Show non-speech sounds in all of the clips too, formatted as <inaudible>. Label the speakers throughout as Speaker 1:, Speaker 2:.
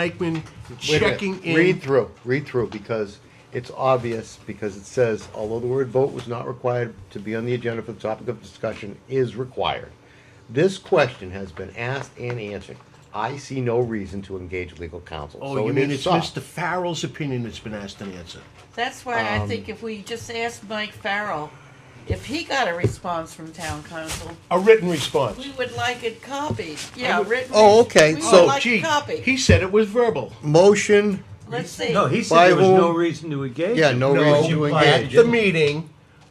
Speaker 1: Eichmann
Speaker 2: Wait a minute.
Speaker 1: checking in.
Speaker 2: Read through, read through, because it's obvious, because it says, although the word vote was not required to be on the agenda for the topic of discussion, is required. This question has been asked and answered. I see no reason to engage legal counsel.
Speaker 1: Oh,
Speaker 2: So
Speaker 1: you
Speaker 2: it
Speaker 1: mean
Speaker 2: is
Speaker 1: it's
Speaker 2: soft.
Speaker 1: Mr. Farrell's opinion that's been asked and answered?
Speaker 3: That's why I think if we just asked Mike Farrell, if he got a response from town council,
Speaker 1: A written response.
Speaker 3: we would like it copied, yeah, written.
Speaker 2: Oh, okay,
Speaker 3: We
Speaker 2: so-
Speaker 3: would
Speaker 1: Oh,
Speaker 3: like
Speaker 1: gee,
Speaker 3: it copied,
Speaker 1: he said it was verbal.
Speaker 2: Motion,
Speaker 3: let's see.
Speaker 4: No, he
Speaker 2: By
Speaker 4: said there was
Speaker 2: whom?
Speaker 4: no reason to engage.
Speaker 2: yeah,
Speaker 4: him.
Speaker 2: no
Speaker 1: No,
Speaker 2: reason to
Speaker 1: At
Speaker 2: engage.
Speaker 1: the meeting,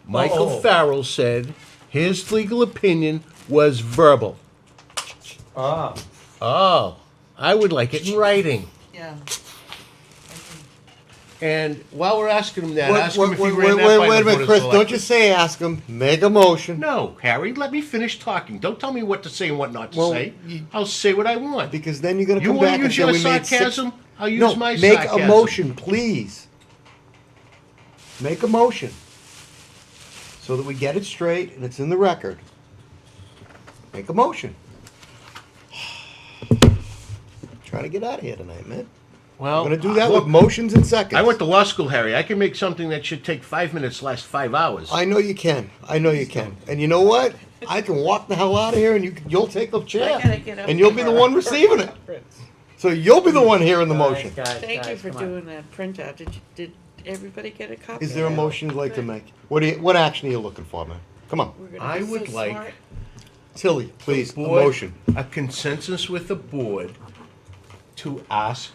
Speaker 1: Michael
Speaker 4: Oh.
Speaker 1: Farrell said his legal opinion was verbal.
Speaker 4: Ah,
Speaker 1: Oh, I would like it in writing.
Speaker 3: Yeah,
Speaker 1: And while we're asking him that,
Speaker 2: Wait,
Speaker 1: ask him if he
Speaker 2: wait,
Speaker 1: ran
Speaker 2: wait,
Speaker 1: that by
Speaker 2: wait
Speaker 1: the
Speaker 2: a
Speaker 1: Board
Speaker 2: minute,
Speaker 1: of
Speaker 2: Chris, don't
Speaker 1: Selectmen.
Speaker 2: you say ask him, make a motion.
Speaker 1: No, Harry, let me finish talking. Don't tell me what to say and what not to
Speaker 2: Well,
Speaker 1: say.
Speaker 2: you-
Speaker 1: I'll say what I want.
Speaker 2: Because then you're gonna
Speaker 1: you
Speaker 2: come
Speaker 1: want
Speaker 2: back
Speaker 1: to
Speaker 2: and
Speaker 1: use
Speaker 2: say
Speaker 1: your
Speaker 2: we made six.
Speaker 1: sarcasm? I'll use
Speaker 2: No,
Speaker 1: my
Speaker 2: make
Speaker 1: sarcasm.
Speaker 2: a motion, please. Make a motion. So that we get it straight and it's in the record. Make a motion. <sighs> Trying to get out of here tonight, man.
Speaker 1: Well,
Speaker 2: I'm gonna do that
Speaker 1: Oh, look,
Speaker 2: with motions and seconds.
Speaker 1: I went to law school, Harry. I can make something that should take five minutes last five hours.
Speaker 2: I know you can. I know you can. And you know what? I can walk the hell out of here and you, can- you'll take a chair.
Speaker 3: gotta get up
Speaker 2: And you'll be the one receiving it. So you'll be the one hearing the motion.
Speaker 4: Ah. Guys, guys,
Speaker 3: thank you
Speaker 4: guys,
Speaker 3: for
Speaker 4: come on.
Speaker 3: doing that printout, did, you- did everybody get a copy?
Speaker 2: Is there a
Speaker 3: of that?
Speaker 2: motion you'd like to make? What do you, what action are you looking for, man? Come
Speaker 3: We're
Speaker 2: on,
Speaker 3: gonna
Speaker 1: I
Speaker 3: be so
Speaker 1: would like-
Speaker 3: smart.
Speaker 2: Tilly, please, a
Speaker 1: Board,
Speaker 2: motion.
Speaker 1: A consensus with the board to ask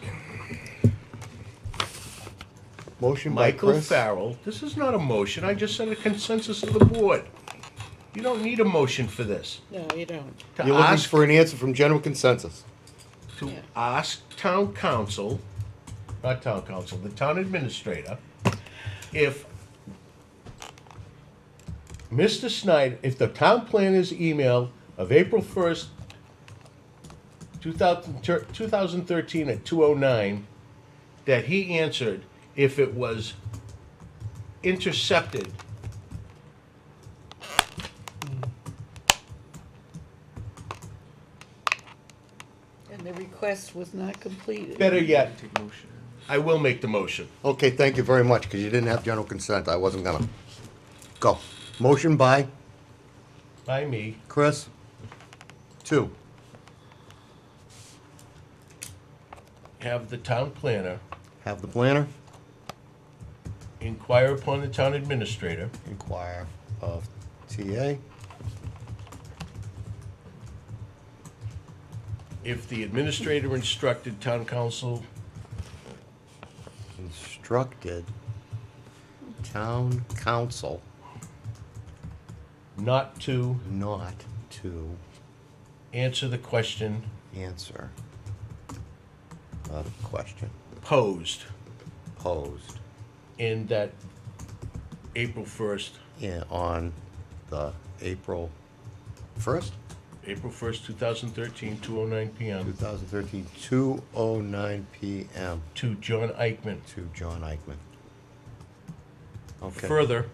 Speaker 2: Motion by
Speaker 1: Michael
Speaker 2: Chris.
Speaker 1: Farrell. This is not a motion. I just said a consensus of the board. You don't need a motion for this.
Speaker 3: No, you don't,
Speaker 1: To
Speaker 2: You're looking
Speaker 1: ask
Speaker 2: for an answer from general consensus.
Speaker 1: to
Speaker 3: Yeah.
Speaker 1: ask town council, not town council, the town administrator, if Mr. Snyder, if the town planner's email of April first, 2013 at 209, that he answered if it was intercepted
Speaker 3: and the request was not completed.
Speaker 1: Better yet, I will make the motion.
Speaker 2: Okay, thank you very much, because you didn't have general consent. I wasn't gonna. Go. Motion by
Speaker 1: By me.
Speaker 2: Chris. Two.
Speaker 1: Have the town planner
Speaker 2: Have the planner
Speaker 1: inquire upon the town administrator
Speaker 2: inquire of TA.
Speaker 1: if the administrator instructed town council
Speaker 2: Instructed town council
Speaker 1: not to
Speaker 2: not to
Speaker 1: answer the question
Speaker 2: answer the question
Speaker 1: posed
Speaker 2: posed.
Speaker 1: in that April 1st,
Speaker 2: in, on the April first,
Speaker 1: April 1st, 2013, 2:09
Speaker 2: two
Speaker 1: PM,
Speaker 2: thousand thirteen, two oh nine PM
Speaker 1: to John Eichman.
Speaker 2: to John Eichman. Okay,
Speaker 1: Further,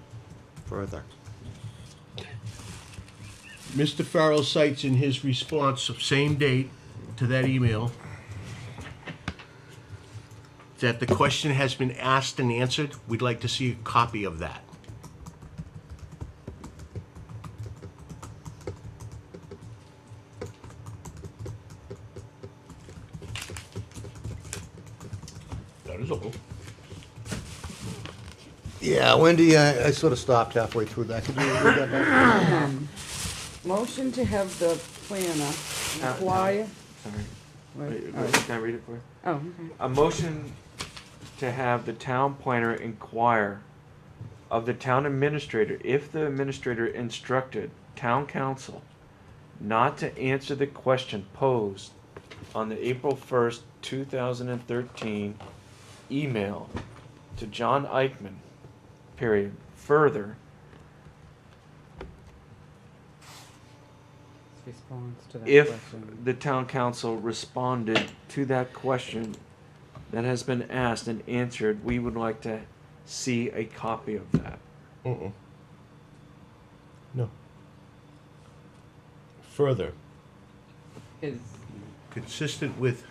Speaker 2: further.
Speaker 1: Mr. Farrell cites in his response of same date to that email that the question has been asked and answered. We'd like to see a copy of that. That is all.
Speaker 2: Yeah, Wendy, I, I sort of stopped halfway through that. Could you read that back?
Speaker 5: Motion to have the planner
Speaker 6: no.
Speaker 5: inquire.
Speaker 6: Sorry.
Speaker 5: Wait,
Speaker 6: Wait,
Speaker 5: all
Speaker 6: wait,
Speaker 5: right.
Speaker 6: Can I read it for you?
Speaker 5: Oh, okay.
Speaker 6: A motion to have the town planner inquire of the town administrator if the administrator instructed town council not to answer the question posed on the April first, two thousand and thirteen email to John Eichman, period. Further,
Speaker 5: Response to that
Speaker 6: if the town council responded to that question that has been asked and answered, we would like to see a copy of that.
Speaker 1: Mm-mm. No. Further,
Speaker 5: Is,
Speaker 1: consistent with